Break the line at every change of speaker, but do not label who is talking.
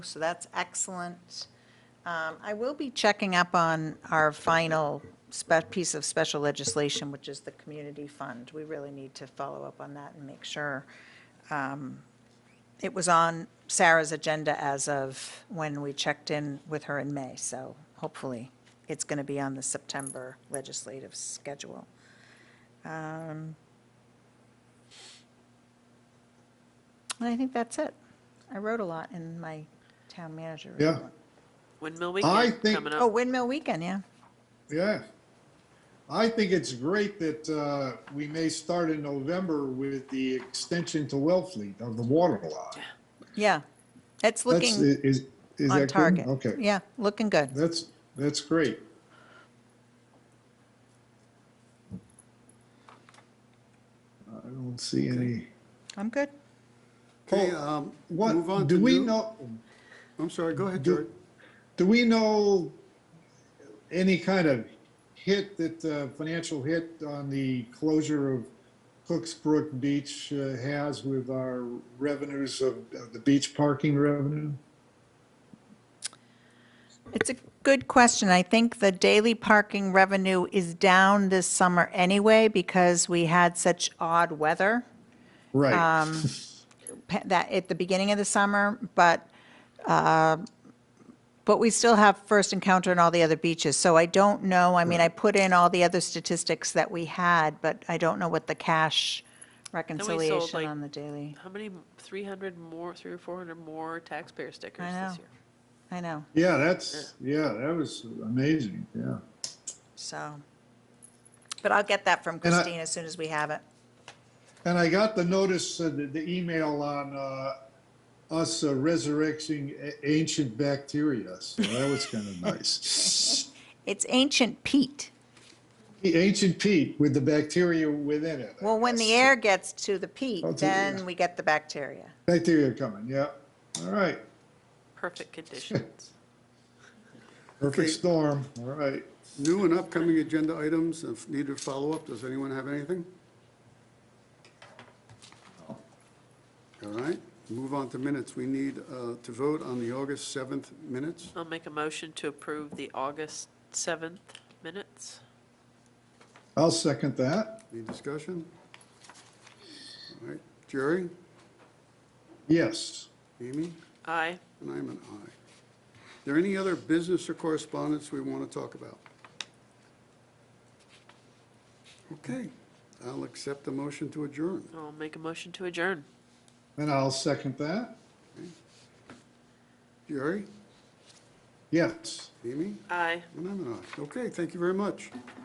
So that's excellent. Um, I will be checking up on our final spe- piece of special legislation, which is the community fund. We really need to follow up on that and make sure. um, It was on Sarah's agenda as of when we checked in with her in May, so hopefully it's going to be on the September legislative schedule. Um, And I think that's it. I wrote a lot in my town manager
Yeah.
report.
Windmill
I
Weekend
think-
coming
Oh,
up.
Windmill Weekend, yeah.
Yeah. I think it's great that uh, we may start in November with the extension to Wellfleet of the water lot.
Yeah. It's
That's,
looking
is, is that
on
good?
target.
Okay,
Yeah, looking good.
that's, that's great. I don't see any.
I'm good.
Okay, um, move on
What,
to.
do we
new-
know,
I'm sorry, go ahead,
do-
George.
do we know any kind of hit that, uh, financial hit on the closure of Cooks Brook Beach uh, has with our revenues of of the beach parking revenue?
It's a good question. I think the daily parking revenue is down this summer anyway because we had such odd weather
Right.
um, pa- that at the beginning of the summer, but, uh, but we still have first encounter in all the other beaches. So I don't know. I mean, I put in all the other statistics that we had, but I don't know what the cash reconciliation
like,
on the daily.
How many, 300 more, three or 400 more taxpayer stickers
I know.
this year?
I know,
Yeah, that's, yeah, that was amazing, yeah.
so. But I'll get that from
And I-
Christine as soon as we have it.
And I got the notice, uh, the, the email on, uh, us uh, resurrecting a- ancient bacteria, so that was kind of nice.
It's ancient peat.
The ancient peat with the bacteria within it. I
Well, when the
guess.
air gets to the peat,
Oh, to-
then we get the bacteria.
Bacteria coming, yeah. All right.
Perfect conditions.
Perfect
Okay.
storm, all right.
New and upcoming agenda items, if needed follow-up, does anyone have anything? All right, move on to minutes. We need uh, to vote on the August 7th minutes.
I'll make a motion to approve the August 7th minutes.
I'll second that.
Any discussion? All right, Jerry,
Yes.
Amy,
Aye.
and I'm an aye. There any other business or correspondence we want to talk about? Okay, I'll accept the motion to adjourn.
I'll make a motion to adjourn.
And I'll second that.
Jerry,
Yes.
Amy?
Aye.
And I'm an aye. Okay, thank you very much.